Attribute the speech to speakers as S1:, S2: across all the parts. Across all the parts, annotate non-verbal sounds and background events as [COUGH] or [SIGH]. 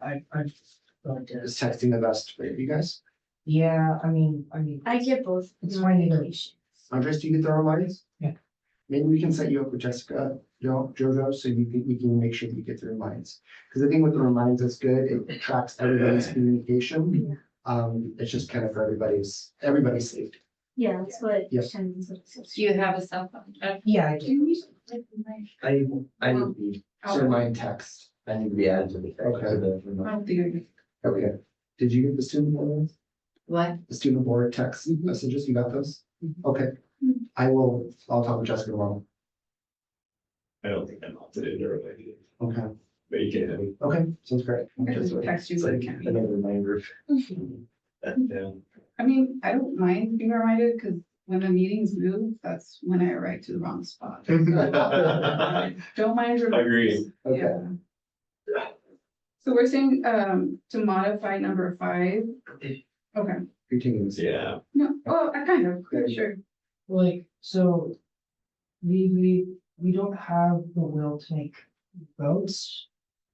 S1: I, I don't
S2: Is texting the best way for you guys?
S1: Yeah, I mean, I mean,
S3: I get both.
S1: It's fine either.
S3: notifications.
S2: Andres, do you get the reminders?
S1: Yeah.
S2: Maybe we can set you up with Jessica, Jo- Jojo, so you can, we can make sure you get the reminders. Cause I think with the reminders, it's good, it tracks everybody's communication. Um, it's just kind of for everybody's, everybody's safety.
S3: Yeah, that's what.
S2: Yes.
S4: Do you have a cell phone? Jeff?
S1: yeah, I do.
S5: I, I need to be,
S2: So mine text,
S5: I need to be added to the.
S2: Okay.
S5: to the remote.
S2: okay. Did you get the student board,
S4: What?
S2: the student board text messages? You got those?
S1: Mhm.
S2: Okay. I will, I'll talk with Jessica tomorrow.
S6: I don't think I'm up to date or related,
S2: Okay,
S6: but you can,
S2: okay, sounds great.
S7: just text you so it can be.
S5: Another reminder.
S6: uh, yeah.
S7: I mean, I don't mind being reminded, because when the meetings move, that's when I arrive to the wrong
S6: [LAUGHS]
S7: spot. Don't mind. reminders.
S6: Agreed.
S2: [LAUGHS] Okay.
S7: Yeah. So we're saying, um, to modify number five. Okay,
S2: You're taking this.
S6: Yeah,
S7: no, oh, I kind of, sure.
S1: Like, so we, we, we don't have the will to make votes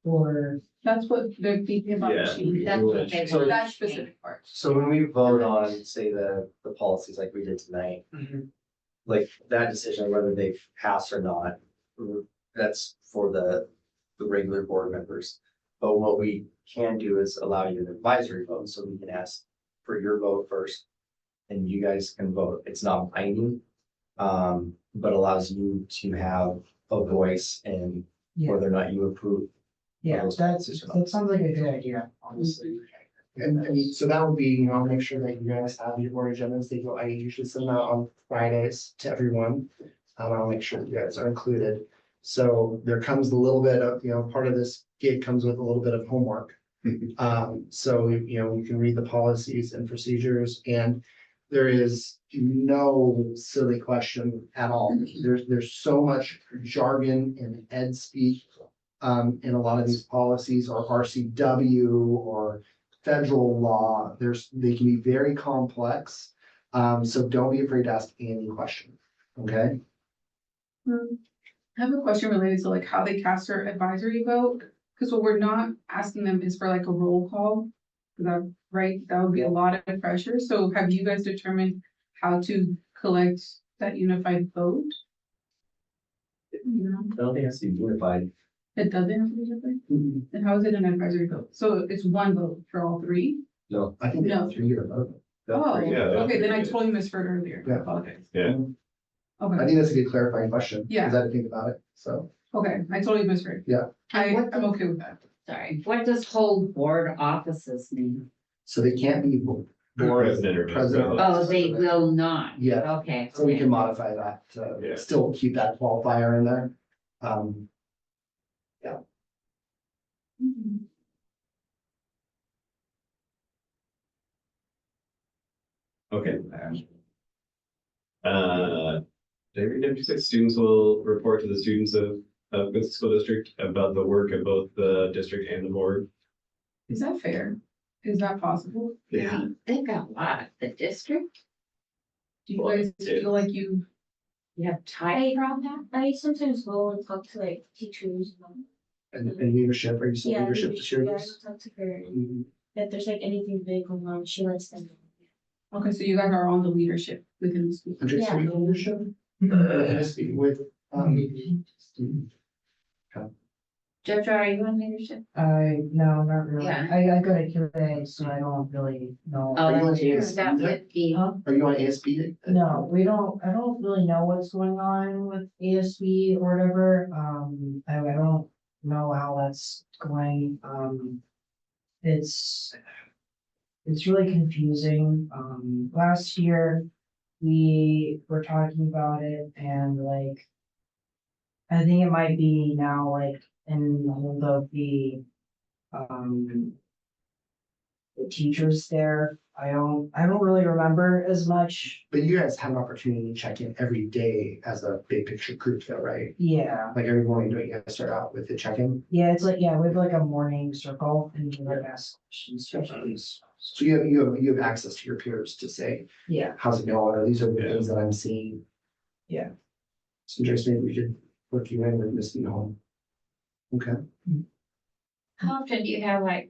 S1: or
S7: That's what they're thinking about.
S6: Yeah.
S7: changing.
S4: That's what they
S5: So-
S4: want.
S7: That specific part.
S5: So when we vote on, say, the, the policies like we did tonight, like that decision, whether they pass or not, that's for the, the regular board members. But what we can do is allow you an advisory vote, so we can ask for your vote first. And you guys can vote. It's not binding, um, but allows you to have a voice in whether or not you approve.
S1: Yeah, that's, that sounds like a good idea, honestly.
S2: And, and so that would be, you know, I'll make sure that you guys have your board agendas, they go, I usually send out on Fridays to everyone. Um, I'll make sure you guys are included. So there comes a little bit of, you know, part of this gig comes with a little bit of homework. Um, so, you know, you can read the policies and procedures and there is no silly question at all. There's, there's so much jargon and ed speak. Um, in a lot of these policies or RCW or federal law, there's, they can be very complex. Um, so don't be afraid to ask any question, okay?
S7: Um, I have a question related to like how they cast their advisory vote, because what we're not asking them is for like a roll call. Is that right? That would be a lot of pressure. So have you guys determined how to collect that unified vote? No,
S5: I don't think it has to be unified.
S7: it doesn't have to be unified.
S2: I
S7: Then how is it an advisory vote? So it's one vote for all three?
S2: think
S7: No.
S2: it's three or both.
S7: Oh,
S6: yeah, that's
S7: okay, then I
S6: pretty good.
S7: totally misheard earlier.
S2: Yeah.
S7: Apologies.
S6: Yeah.
S2: I
S7: Okay,
S2: think that's a good clarifying question. 'cause
S7: Yeah.
S2: I didn't think about it, so.
S7: okay, I totally misheard.
S2: Yeah.
S7: I,
S4: And what
S7: I'm
S4: does-
S7: okay with that.
S4: Sorry, what does hold board offices mean?
S2: So they can't be bo- board as
S6: President or
S2: president.
S4: Oh, they will not.
S2: Yeah.
S4: Okay.
S2: So we
S4: okay.
S2: can modify that to
S6: Yeah.
S2: still keep that qualifier in there. Um,
S3: Mm-hmm.
S6: Oh, okay. Uh, did I read number six, students will report to the students of, of Quincy School District about the work of both the district and the board.
S7: Is that fair? Is that possible?
S6: Yeah.
S4: They got a lot. The district,
S7: Do you
S6: Well,
S7: guys
S6: it-
S7: feel like you
S4: you have tight around that?
S3: I sometimes go and talk to like teachers. about-
S2: and, and leadership, are you saying
S3: Yeah,
S2: leadership to share
S3: yeah, I
S2: this?
S3: go talk to her.
S2: Mhm.
S3: If there's like anything big going on, she lets them know.
S7: Okay, so you guys are on the leadership within the school.
S2: Andrew,
S3: Yeah.
S2: so you know leadership? Uh, speak With, um,
S4: Jeff, are you in leadership?
S1: I, Uh, no, not really.
S4: Yeah.
S1: I, I got a Q and A, so I don't really know.
S4: Oh,
S2: you on
S4: that's true.
S2: ASB
S4: That
S2: there?
S4: would be.
S1: Huh?
S2: are you on ASB?
S1: No, we don't, I don't really know what's going on with ASB or whatever, um, I, I don't know how that's going, um. It's, it's really confusing, um, last year, we were talking about it and like. I think it might be now like in hold of the, um. The teachers there, I don't, I don't really remember as much,
S2: But you guys have an opportunity to check in every day as a big picture group though, right?
S1: yeah,
S2: Like every morning, don't you guys start out with the check-in?
S1: yeah, it's like, yeah, we have like a morning circle and we like ask questions, questions.
S2: So you have, you have, you have access to your peers to say,
S1: Yeah,
S2: how's it going? Or these are the
S6: Yeah.
S2: things that I'm seeing.
S1: Yeah.
S2: So just maybe we should work you in with Miss Home. Okay.
S4: How often do you have like